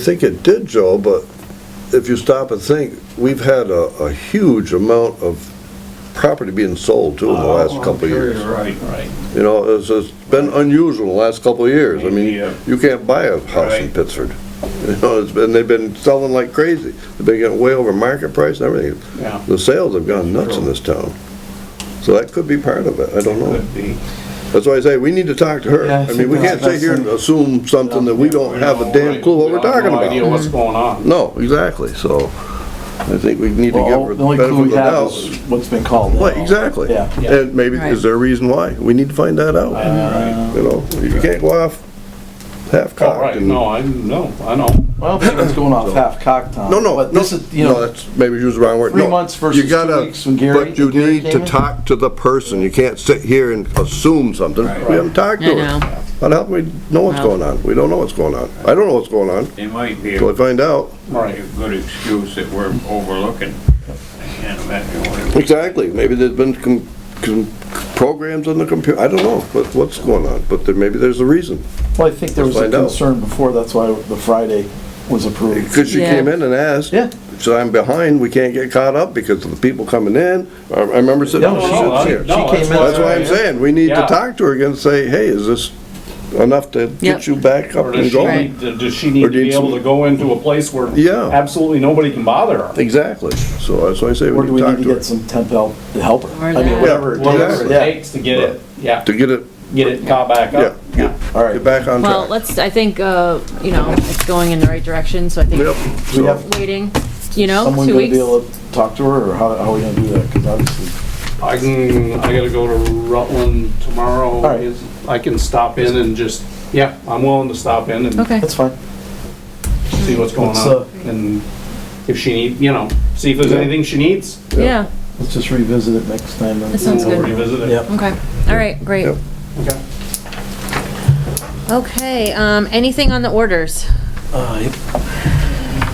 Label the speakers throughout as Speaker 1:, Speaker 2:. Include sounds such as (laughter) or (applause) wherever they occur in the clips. Speaker 1: I think it did, Joe, but if you stop and think, we've had a, a huge amount of property being sold too in
Speaker 2: Uh, Oh,
Speaker 1: the last couple of years.
Speaker 2: Right, right.
Speaker 1: You know, it's, it's been unusual in the last couple of years. I mean,
Speaker 2: Yeah.
Speaker 1: you can't buy a house in
Speaker 2: Right.
Speaker 1: Pittsford. (laughs) You know, it's been, they've been selling like crazy. They've been getting way over market price and everything.
Speaker 2: Yeah.
Speaker 1: The sales have gone nuts in this town. So that could be part of it. I don't know.
Speaker 2: Could be.
Speaker 1: That's why I say, we need to talk to her.
Speaker 3: Yeah, I
Speaker 1: I mean,
Speaker 3: think
Speaker 1: we
Speaker 3: that's
Speaker 1: can't sit
Speaker 3: best
Speaker 1: here and assume something that we don't have a damn clue what we're talking
Speaker 2: We have No idea
Speaker 1: about.
Speaker 2: what's going on.
Speaker 1: No, exactly, so I think we need to give
Speaker 3: Well,
Speaker 1: her
Speaker 3: the
Speaker 1: the
Speaker 3: only
Speaker 1: benefit
Speaker 3: clue
Speaker 1: of
Speaker 3: we
Speaker 1: the
Speaker 3: have
Speaker 1: doubt.
Speaker 3: is what's been called.
Speaker 1: Right, exactly.
Speaker 3: Yeah. uh,
Speaker 1: And maybe, is there a reason why? We need to find that
Speaker 2: All
Speaker 1: out.
Speaker 2: right.
Speaker 1: You know, you can't go off
Speaker 3: Oh,
Speaker 2: All
Speaker 1: half-cocked
Speaker 2: right,
Speaker 1: and,
Speaker 2: no, I, no, I know.
Speaker 3: Well, it's going off half-cocked, Tom.
Speaker 1: no, no,
Speaker 3: But
Speaker 1: no,
Speaker 3: this is, you
Speaker 1: no,
Speaker 3: know,
Speaker 1: that's, maybe use the wrong word.
Speaker 3: three
Speaker 1: No,
Speaker 3: months
Speaker 1: you
Speaker 3: versus two
Speaker 1: gotta-
Speaker 3: weeks when Gary-
Speaker 1: But you
Speaker 3: Gary
Speaker 1: need
Speaker 3: came
Speaker 1: to
Speaker 3: in?
Speaker 1: talk to the person. You can't sit here and assume something. We
Speaker 2: Right.
Speaker 1: haven't talked to
Speaker 4: I
Speaker 1: her.
Speaker 4: know.
Speaker 1: How the hell do we know what's
Speaker 4: No.
Speaker 1: going on? We don't know what's going on. I don't know what's going on.
Speaker 5: It might be a
Speaker 1: Till I find out.
Speaker 2: Right.
Speaker 5: a good excuse that we're overlooking. I can't imagine what it
Speaker 1: Exactly, maybe there's been com- com- programs on the computer, I don't know, but what's going on, but there, maybe there's a reason.
Speaker 3: well, I think there was a
Speaker 1: Find out.
Speaker 3: concern before, that's why the Friday was approved.
Speaker 1: Because she
Speaker 4: Yeah.
Speaker 1: came in and asked.
Speaker 3: Yeah.
Speaker 1: So I'm behind, we can't get caught up because of the people coming in, I I remember sitting,
Speaker 3: No,
Speaker 1: she
Speaker 3: no,
Speaker 1: sits
Speaker 3: I-
Speaker 1: here.
Speaker 3: no. She came in-
Speaker 1: That's why I'm saying, we need to
Speaker 2: Yeah.
Speaker 1: talk to her again, and say, hey, is this enough to
Speaker 4: Yep.
Speaker 1: get you back up
Speaker 2: Or does
Speaker 1: and
Speaker 2: she
Speaker 1: going?
Speaker 2: need, does she
Speaker 1: Or
Speaker 2: need to
Speaker 1: did
Speaker 2: be
Speaker 1: some-
Speaker 2: able to go into a place where
Speaker 1: Yeah.
Speaker 2: absolutely nobody can bother her?
Speaker 1: Exactly, so that's why I say
Speaker 3: Or
Speaker 1: we
Speaker 3: do
Speaker 1: need
Speaker 3: we
Speaker 1: to
Speaker 3: need
Speaker 1: talk
Speaker 3: to
Speaker 1: to
Speaker 3: get
Speaker 1: her.
Speaker 3: some temp help to help her? I
Speaker 4: Or
Speaker 3: mean,
Speaker 4: that.
Speaker 3: whatever it
Speaker 2: Whatever it
Speaker 3: takes, yeah.
Speaker 2: takes to get it, yeah,
Speaker 1: To get it,
Speaker 2: get it caught back
Speaker 1: yeah,
Speaker 2: up.
Speaker 1: get,
Speaker 3: All right.
Speaker 1: get back on track.
Speaker 4: Well, let's, I think, uh, you know, it's going in the right direction, so I
Speaker 1: Yep,
Speaker 4: think
Speaker 3: We
Speaker 1: so,
Speaker 3: have
Speaker 4: waiting, you know,
Speaker 3: someone
Speaker 4: two
Speaker 3: gonna be
Speaker 4: weeks.
Speaker 3: able to talk to her, or how, how are we gonna do that? Because obviously,
Speaker 2: I can, I gotta go to Rutland tomorrow.
Speaker 3: right.
Speaker 2: Is- I can stop in and just, yeah, I'm willing to stop in and
Speaker 4: Okay,
Speaker 3: that's fine.
Speaker 2: see what's going
Speaker 3: Let's,
Speaker 2: on. And if she need, you know, see if there's
Speaker 1: Yeah.
Speaker 2: anything she needs.
Speaker 4: yeah,
Speaker 3: Let's just revisit it next time. then.
Speaker 4: That sounds
Speaker 2: We'll
Speaker 4: good.
Speaker 2: revisit it.
Speaker 3: Yep.
Speaker 4: okay, all right, great.
Speaker 1: Yep.
Speaker 2: Okay.
Speaker 4: Okay, um, anything on the orders?
Speaker 3: Uh, yep.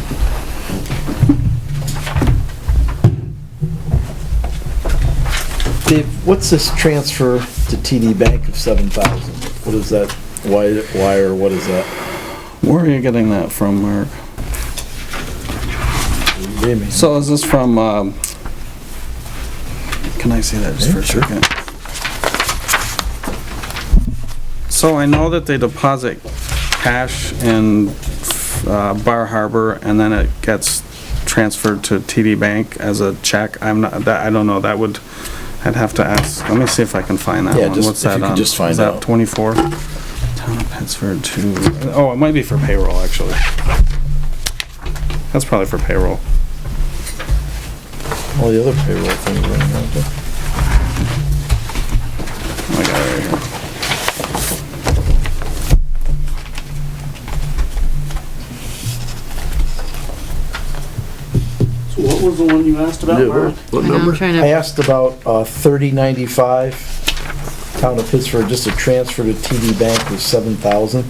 Speaker 3: Dave, what's this transfer to TD Bank of seven thousand? What is that? Why, why or what is that?
Speaker 6: Where are you getting that from, Mark?
Speaker 3: Give me.
Speaker 6: So is this from, um, can I see that just for a
Speaker 3: Yeah, sure.
Speaker 6: second? So I know that they deposit cash in uh, Bar Harbor and then it gets transferred to TD Bank as a check. I'm not, that, I don't know, that would, I'd have to ask. Let me see if I can find that
Speaker 3: Yeah,
Speaker 6: one.
Speaker 3: just-
Speaker 6: What's
Speaker 3: if you
Speaker 6: that
Speaker 3: could
Speaker 6: on?
Speaker 3: just find
Speaker 6: Is
Speaker 3: out.
Speaker 6: that 24? Town of Pittsford to, oh, it might be for payroll, actually. That's probably for payroll.
Speaker 3: All the other payroll things are in there. too.
Speaker 6: I got it right here.
Speaker 2: So what was the one you asked
Speaker 1: Yeah,
Speaker 2: about, Mark?
Speaker 1: what- what
Speaker 4: I know, I'm
Speaker 1: number?
Speaker 4: trying
Speaker 3: I
Speaker 4: to,
Speaker 3: asked about, uh, thirty ninety-five, town of Pittsburgh, just a transfer to TD Bank of seven thousand.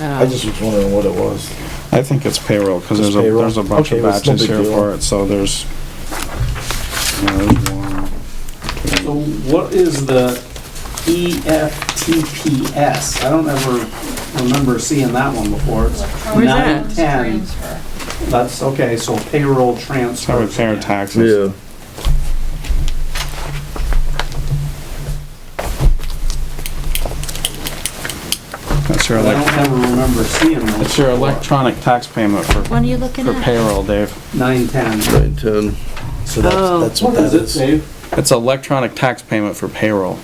Speaker 3: I
Speaker 4: uh,
Speaker 3: just was wondering what it was.
Speaker 6: I think it's payroll, because
Speaker 3: Just
Speaker 6: there's a,
Speaker 3: payroll?
Speaker 6: there's a bunch
Speaker 3: Okay,
Speaker 6: of
Speaker 3: well, it's no
Speaker 6: batches
Speaker 3: big
Speaker 6: here
Speaker 3: deal.
Speaker 6: for it, so there's. yeah, there's one.
Speaker 2: So what is the E EFTPS? I don't ever remember seeing that one before. It's
Speaker 4: Where's
Speaker 2: nine
Speaker 4: that?
Speaker 2: ten. That's, okay, so payroll
Speaker 6: So
Speaker 2: transfer.
Speaker 6: we pay our taxes.
Speaker 1: Yeah,
Speaker 6: That's your,
Speaker 2: But I
Speaker 6: elec-
Speaker 2: don't ever remember seeing
Speaker 6: that's
Speaker 2: those.
Speaker 6: your electronic tax payment for,
Speaker 4: what are you looking
Speaker 6: for
Speaker 4: at?
Speaker 6: payroll, Dave.
Speaker 2: Nine ten.
Speaker 1: nine, ten.
Speaker 3: So that's,
Speaker 4: Oh.
Speaker 3: that's what
Speaker 2: What
Speaker 3: that
Speaker 2: does it
Speaker 3: is.
Speaker 2: say?
Speaker 6: It's electronic tax payment for payroll.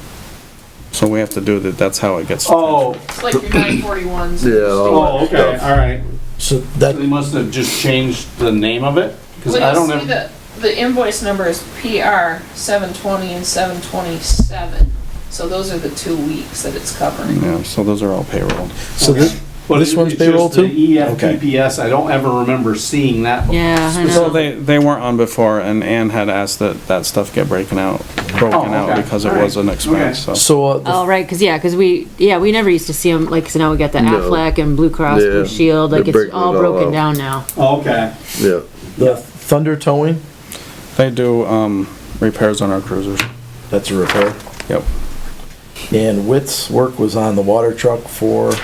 Speaker 6: So we have to do that, that's how it gets.
Speaker 2: Oh,
Speaker 7: It's like your nine forty ones.
Speaker 1: Yeah, all
Speaker 2: oh,
Speaker 1: that
Speaker 2: okay,
Speaker 1: stuff.
Speaker 2: all right.
Speaker 3: So
Speaker 2: So They
Speaker 3: that,
Speaker 2: must have just changed the name of it? Because I
Speaker 7: Well,
Speaker 2: don't
Speaker 7: you'll see
Speaker 2: ever,
Speaker 7: that the invoice number is PR seven twenty and seven twenty-seven. So those are the two weeks that it's covering.
Speaker 6: Yeah, so those are all payroll.
Speaker 3: so this,
Speaker 2: but
Speaker 3: this
Speaker 2: it-
Speaker 3: one's
Speaker 2: it's just
Speaker 3: payroll too?
Speaker 2: The E
Speaker 3: Okay.
Speaker 2: EFTPS, I don't ever remember seeing that. before.
Speaker 4: Yeah, I
Speaker 6: So
Speaker 4: know.
Speaker 6: they, they weren't on before, and Ann had asked that that stuff get breaking out, broken out
Speaker 2: Oh, okay.
Speaker 6: because it
Speaker 2: All right.
Speaker 6: was an expense, so.
Speaker 3: So, uh, the
Speaker 4: Oh, right, cause yeah, cause we, yeah, we never used to see them, like, so now we got the
Speaker 1: No.
Speaker 4: Aflac and Blue Cross
Speaker 1: Yeah,
Speaker 4: Blue Shield,
Speaker 1: they're
Speaker 4: like, it's
Speaker 1: breaking
Speaker 4: all
Speaker 1: it all
Speaker 4: broken
Speaker 1: out.
Speaker 4: down now.
Speaker 2: Okay,
Speaker 1: Yeah,
Speaker 3: The thunder towing,
Speaker 6: They do, um, repairs on our cruisers.
Speaker 3: that's a repair.
Speaker 6: Yep.
Speaker 3: And Witt's work was on the water truck for